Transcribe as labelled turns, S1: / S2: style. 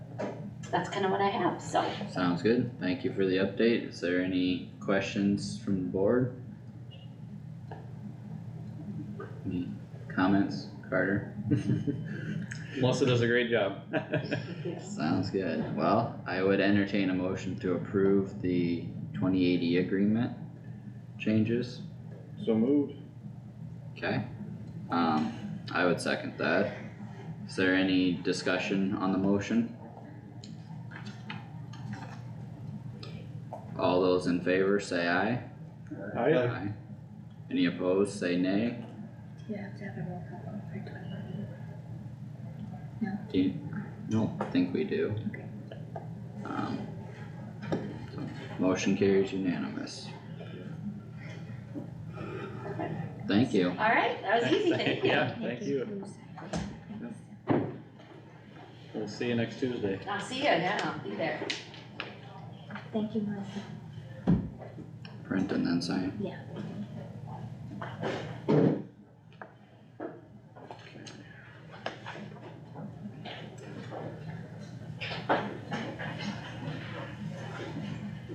S1: that's kinda what I have, so.
S2: Sounds good, thank you for the update, is there any questions from the board? Any comments, Carter?
S3: Melissa does a great job.
S2: Sounds good, well, I would entertain a motion to approve the twenty eighty agreement changes,
S3: So moved.
S2: okay? Um, I would second that, is there any discussion on the motion? All those in favor say aye.
S3: Aye.
S2: Aye. Any opposed, say nay.
S4: You have to have a roll call vote for twenty-one.
S2: Do you, no, I think we do.
S4: Okay.
S2: Um, so, motion carries unanimous. Thank you.
S1: Alright, that was easy, thank you.
S3: Yeah, thank you. We'll see you next Tuesday.
S1: I'll see you, yeah, I'll be there.
S4: Thank you, Melissa.
S2: Print and then sign.
S4: Yeah.